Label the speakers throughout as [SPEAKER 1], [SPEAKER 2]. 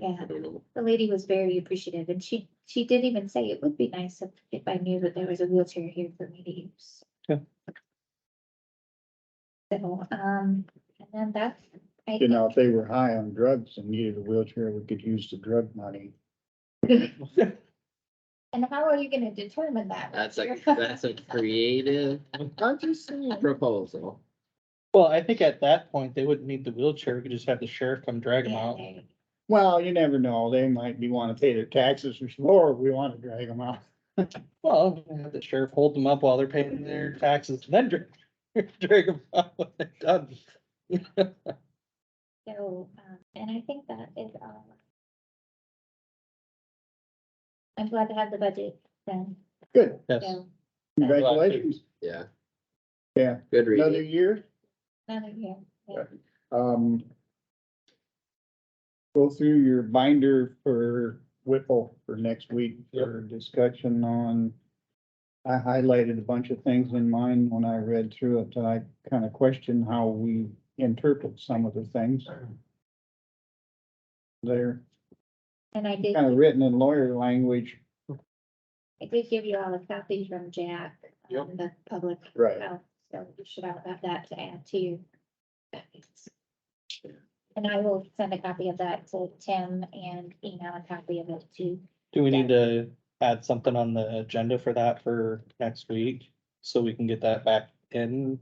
[SPEAKER 1] Yeah,
[SPEAKER 2] I don't know.
[SPEAKER 1] the lady was very appreciative and she, she did even say it would be nice if, if I knew that there was a wheelchair here for me to use.
[SPEAKER 3] Yeah.
[SPEAKER 1] So, um, and then that's, I,
[SPEAKER 4] You know, if they were high on drugs and needed a wheelchair, we could use the drug money.
[SPEAKER 1] and how are you gonna determine that?
[SPEAKER 2] That's a, that's a creative
[SPEAKER 4] I'm just saying.
[SPEAKER 2] proposal.
[SPEAKER 3] Well, I think at that point, they wouldn't need the wheelchair, we could just have the sheriff come drag them
[SPEAKER 1] Yeah,
[SPEAKER 3] out.
[SPEAKER 1] there you
[SPEAKER 4] Well, you never know. They might be wanting to pay their taxes or more. We want to drag them out.
[SPEAKER 3] Well, have the sheriff hold them up while they're paying their taxes, then drag, drag them out when they're done.
[SPEAKER 1] So, um, and I think that is all. I'm glad to have the budget done,
[SPEAKER 4] Good.
[SPEAKER 3] Yes,
[SPEAKER 1] so
[SPEAKER 4] Congratulations.
[SPEAKER 2] Yeah.
[SPEAKER 4] Yeah.
[SPEAKER 2] Good
[SPEAKER 4] Another
[SPEAKER 2] reading.
[SPEAKER 4] year.
[SPEAKER 1] another year. yeah.
[SPEAKER 4] Um. Go through your binder for Whipple for next week
[SPEAKER 3] Yep.
[SPEAKER 4] for discussion on. I highlighted a bunch of things in mine when I read through it. that I kind of questioned how we interpret some of the things. They're
[SPEAKER 1] And I did,
[SPEAKER 4] kind of written in lawyer language.
[SPEAKER 1] I did give you all a copy from Jack
[SPEAKER 3] Yep.
[SPEAKER 1] on the public
[SPEAKER 4] Right.
[SPEAKER 1] health, so you should all have that to add to your. packets. And I will send a copy of that to Tim and email a copy of it to,
[SPEAKER 3] do we need to add something on the agenda for that for next week? So we can get that back in,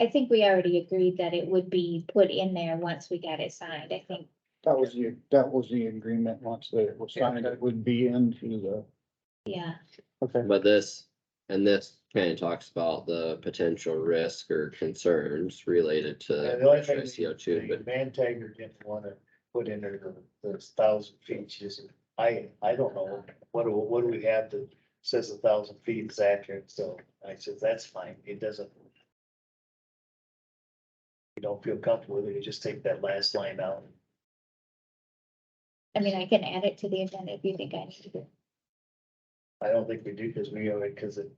[SPEAKER 1] I think we already agreed that it would be put in there once we got it signed, I think.
[SPEAKER 4] That was the, that was the agreement once that it was signed, it would be into the,
[SPEAKER 1] Yeah,
[SPEAKER 3] okay,
[SPEAKER 2] But this, and this kind of talks about the potential risk or concerns related
[SPEAKER 5] Yeah, the only thing
[SPEAKER 2] to
[SPEAKER 5] that
[SPEAKER 2] CO two, but
[SPEAKER 5] The Man Tiger didn't wanna put in there the, the thousand feet, she just, I, I don't know, what do, what do we have that says a thousand feet is accurate, so I said, that's fine, it doesn't. You don't feel comfortable with it, you just take that last line out.
[SPEAKER 1] I mean, I can add it to the agenda if you think I need to.
[SPEAKER 5] I don't think we do, cause we, already- cause it,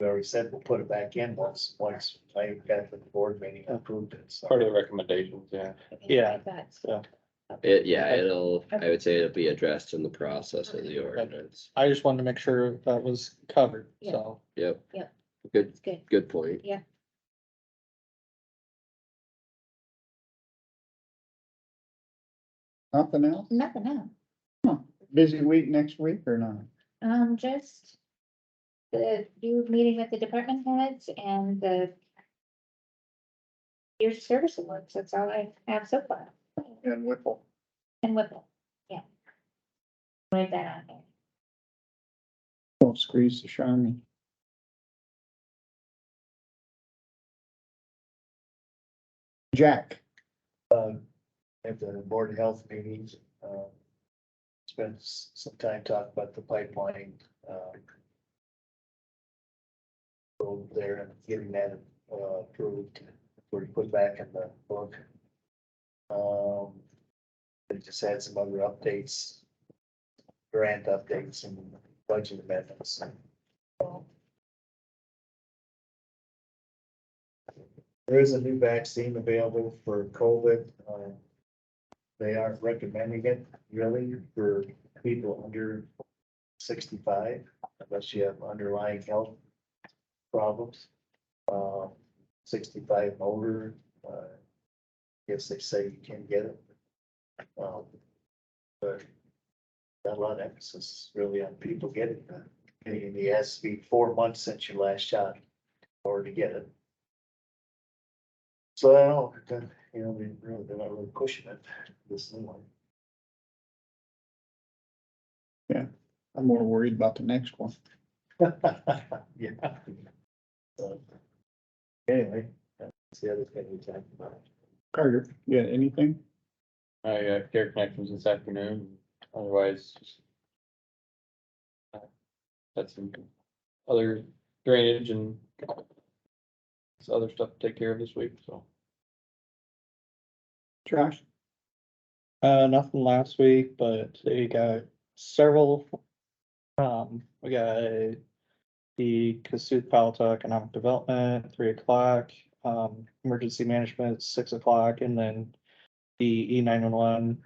[SPEAKER 5] we already said we'll put it back in once, once I got the board meeting approved it, so.
[SPEAKER 6] Part of the recommendations, yeah.
[SPEAKER 3] Yeah.
[SPEAKER 1] But
[SPEAKER 3] so.
[SPEAKER 2] it, yeah, it'll, I would say it'll be addressed in the process of the ordinance.
[SPEAKER 3] I just wanted to make sure that was covered, so.
[SPEAKER 2] Yep.
[SPEAKER 1] Yep.
[SPEAKER 2] Good,
[SPEAKER 1] It's good.
[SPEAKER 2] good point.
[SPEAKER 4] something else.
[SPEAKER 1] Nothing else.
[SPEAKER 4] Busy week next week or not?
[SPEAKER 1] Um, just the new meeting with the department heads and the your service awards. That's all I have so far.
[SPEAKER 4] And Whipple.
[SPEAKER 1] And Whipple, yeah. Write that on there.
[SPEAKER 4] Don't squeeze the Charmy. Jack,
[SPEAKER 5] um, at the board of health meetings, um. Spent s- some time talking about the pipeline, um. Over there and getting that uh, approved, or put back in the book. Um, they just had some other updates. Grant updates and budget amendments. Um, There is a new vaccine available for COVID, um they aren't recommending it really for people under sixty-five unless you have underlying health problems. Um, sixty-five and older, uh, guess they say you can get it. Um, but not a lot of emphasis really on people getting that. And it has to be four months since your last shot in order to get it. So I don't, know, you know, they really, they're not really pushing it this new one.
[SPEAKER 4] I'm more worried about the next one.
[SPEAKER 5] Yeah. So, Anyway, that's the other thing we talked about.
[SPEAKER 4] Carter, you got anything?
[SPEAKER 6] I got care connections this afternoon, otherwise. just, uh, That's some other drainage and some other stuff to take care of this week, so.
[SPEAKER 4] Josh?
[SPEAKER 3] Uh, nothing last week, but we got several. Um, we got the Cassuth Palato Economic Development, three o'clock, um, Emergency Management, six o'clock, and then the E nine one one